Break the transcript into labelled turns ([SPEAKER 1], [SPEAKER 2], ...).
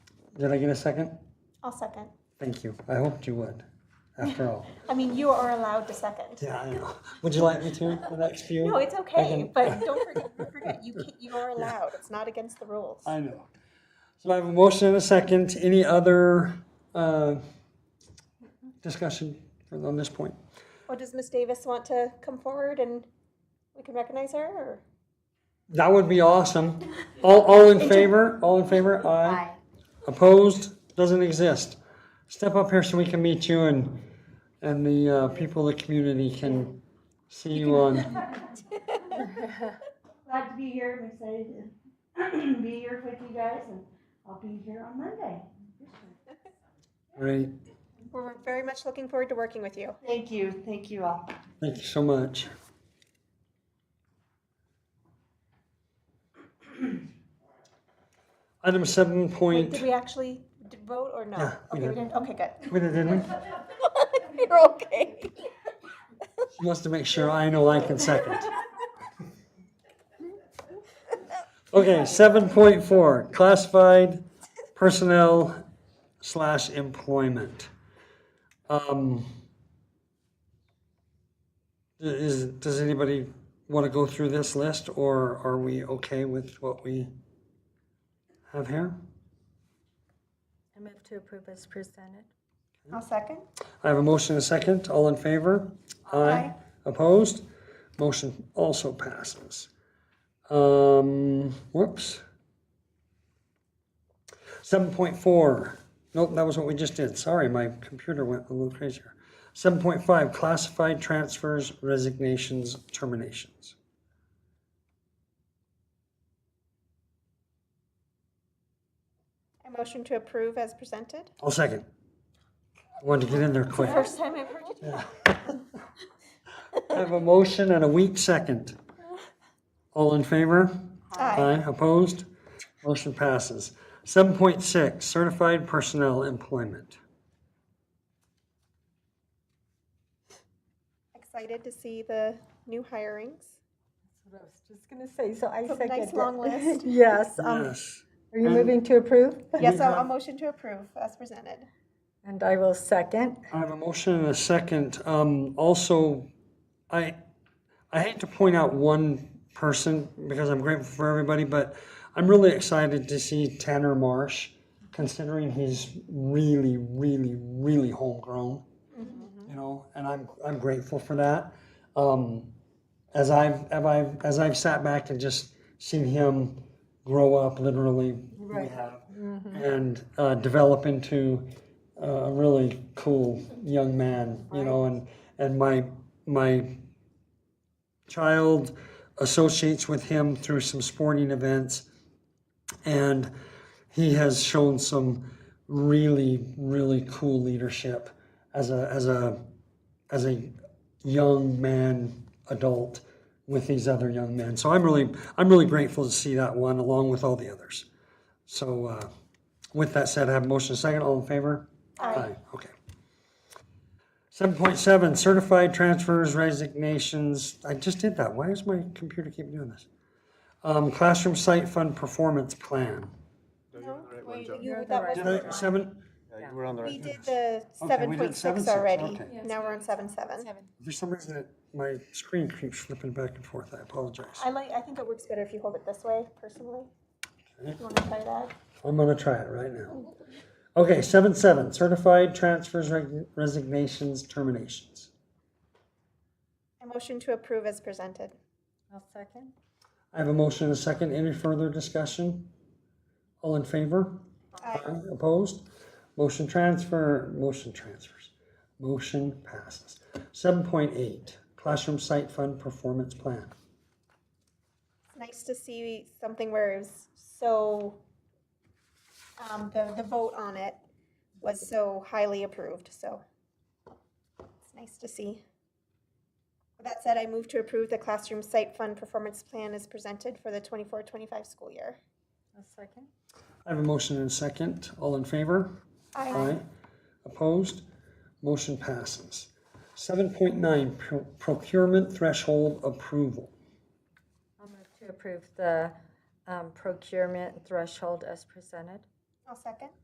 [SPEAKER 1] Did I get a second?
[SPEAKER 2] I'll second.
[SPEAKER 1] Thank you. I hoped you would, after all.
[SPEAKER 2] I mean, you are allowed to second.
[SPEAKER 1] Yeah, I know. Would you like me to the next few?
[SPEAKER 2] No, it's okay,
[SPEAKER 1] can-
[SPEAKER 2] but don't forget, don't forget, you can, you are allowed. It's not against the rules.
[SPEAKER 1] I know. So I have a motion and a second. Any other uh, discussion on this point?
[SPEAKER 2] Or does Miss Davis want to come forward and we can recognize her or?
[SPEAKER 1] That would be awesome. All, all in favor? All in favor? Aye. Opposed? Doesn't exist. Step up here so we can meet you and, and the uh, people of the community can see you on.
[SPEAKER 3] Glad to be here, I'm excited to be here with you guys, and I'll be here on Monday.
[SPEAKER 1] Great.
[SPEAKER 2] We're very much looking forward to working with you.
[SPEAKER 3] Thank you, thank you all.
[SPEAKER 1] Thank you so much. Item seven
[SPEAKER 2] Wait,
[SPEAKER 1] point,
[SPEAKER 2] did we actually d- vote or no?
[SPEAKER 1] Yeah, we
[SPEAKER 2] Okay,
[SPEAKER 1] did.
[SPEAKER 2] we didn't, okay, good.
[SPEAKER 1] wait, didn't we?
[SPEAKER 2] You're okay.
[SPEAKER 1] She wants to make sure I know I can second. Okay, seven point four, classified personnel slash employment. Um, Is, does anybody want to go through this list, or are we okay with what we have here?
[SPEAKER 4] I move to approve as presented.
[SPEAKER 2] I'll second.
[SPEAKER 1] I have a motion and a second. All in favor? Aye. Opposed? Motion also passes. Um, whoops. Seven point four. Nope, that was what we just did. Sorry, my computer went a little crazier. Seven point five, classified transfers, resignations, terminations.
[SPEAKER 2] I motion to approve as presented.
[SPEAKER 1] I'll second. I Wanted to get in there quick.
[SPEAKER 2] First time I've heard you.
[SPEAKER 1] I have a motion and a weak second. All in favor?
[SPEAKER 2] Aye.
[SPEAKER 1] Aye, opposed? Motion passes. Seven point six, certified personnel employment.
[SPEAKER 2] Excited to see the new hirings.
[SPEAKER 4] That's what I was just gonna say, so I
[SPEAKER 2] It's a
[SPEAKER 4] second.
[SPEAKER 2] Oh, nice
[SPEAKER 4] it.
[SPEAKER 2] long list.
[SPEAKER 4] Yes, um,
[SPEAKER 1] Yes,
[SPEAKER 4] are you moving to approve?
[SPEAKER 2] Yes, I'll, I'll motion to approve as presented.
[SPEAKER 4] And I will second.
[SPEAKER 1] I have a motion and a second. Um, also, I, I hate to point out one person because I'm grateful for everybody, but I'm really excited to see Tanner Marsh, considering he's really, really, really homegrown. You know, and I'm, I'm grateful for that. Um, as I've, as I've, as I've sat back and just seen him grow up, literally, we have, and uh, develop into a really cool young man, you know, and and my my child associates with him through some sporting events, and he has shown some really really cool leadership as a as a as a young man adult with these other young men. So I'm really I'm really grateful to see that one along with all the others. So uh, with that said, I have a motion and a second. All in favor? Aye. Okay. Seven point seven, certified transfers, resignations. I just did that. Why does my computer keep doing this? Um, classroom site fund performance plan.
[SPEAKER 2] You- that
[SPEAKER 1] Did
[SPEAKER 2] was-
[SPEAKER 1] I, seven,
[SPEAKER 5] Yeah, you were on the
[SPEAKER 2] We
[SPEAKER 5] right.
[SPEAKER 2] did the
[SPEAKER 1] Okay, we
[SPEAKER 2] seven
[SPEAKER 1] did
[SPEAKER 2] point
[SPEAKER 1] seven
[SPEAKER 2] six
[SPEAKER 1] six,
[SPEAKER 2] already.
[SPEAKER 1] okay.
[SPEAKER 2] Now we're on seven seven.
[SPEAKER 1] for some reason, it- my screen keeps flipping back and forth. I apologize.
[SPEAKER 2] I like, I think it works better if you hold it this way personally. You wanna try that?
[SPEAKER 1] I'm gonna try it right now. Okay, seven seven, certified transfers, reg- resignations, terminations.
[SPEAKER 2] I motion to approve as presented.
[SPEAKER 4] I'll second.
[SPEAKER 1] I have a motion and a second. Any further discussion? All in favor? Aye. Opposed? Motion transfer, motion transfers. Motion passes. Seven point eight, classroom site fund performance plan.
[SPEAKER 2] Nice to see something where it was so, um, the, the vote on it was so highly approved, so. It's nice to see. With that said, I move to approve the classroom site fund performance plan as presented for the twenty-four, twenty-five school year.
[SPEAKER 4] I'll second.
[SPEAKER 1] I have a motion and a second. All in favor? Aye. Opposed? Motion passes. Seven point nine, procurement threshold approval.
[SPEAKER 4] I'll move to approve the um, procurement threshold as presented.
[SPEAKER 2] I'll second.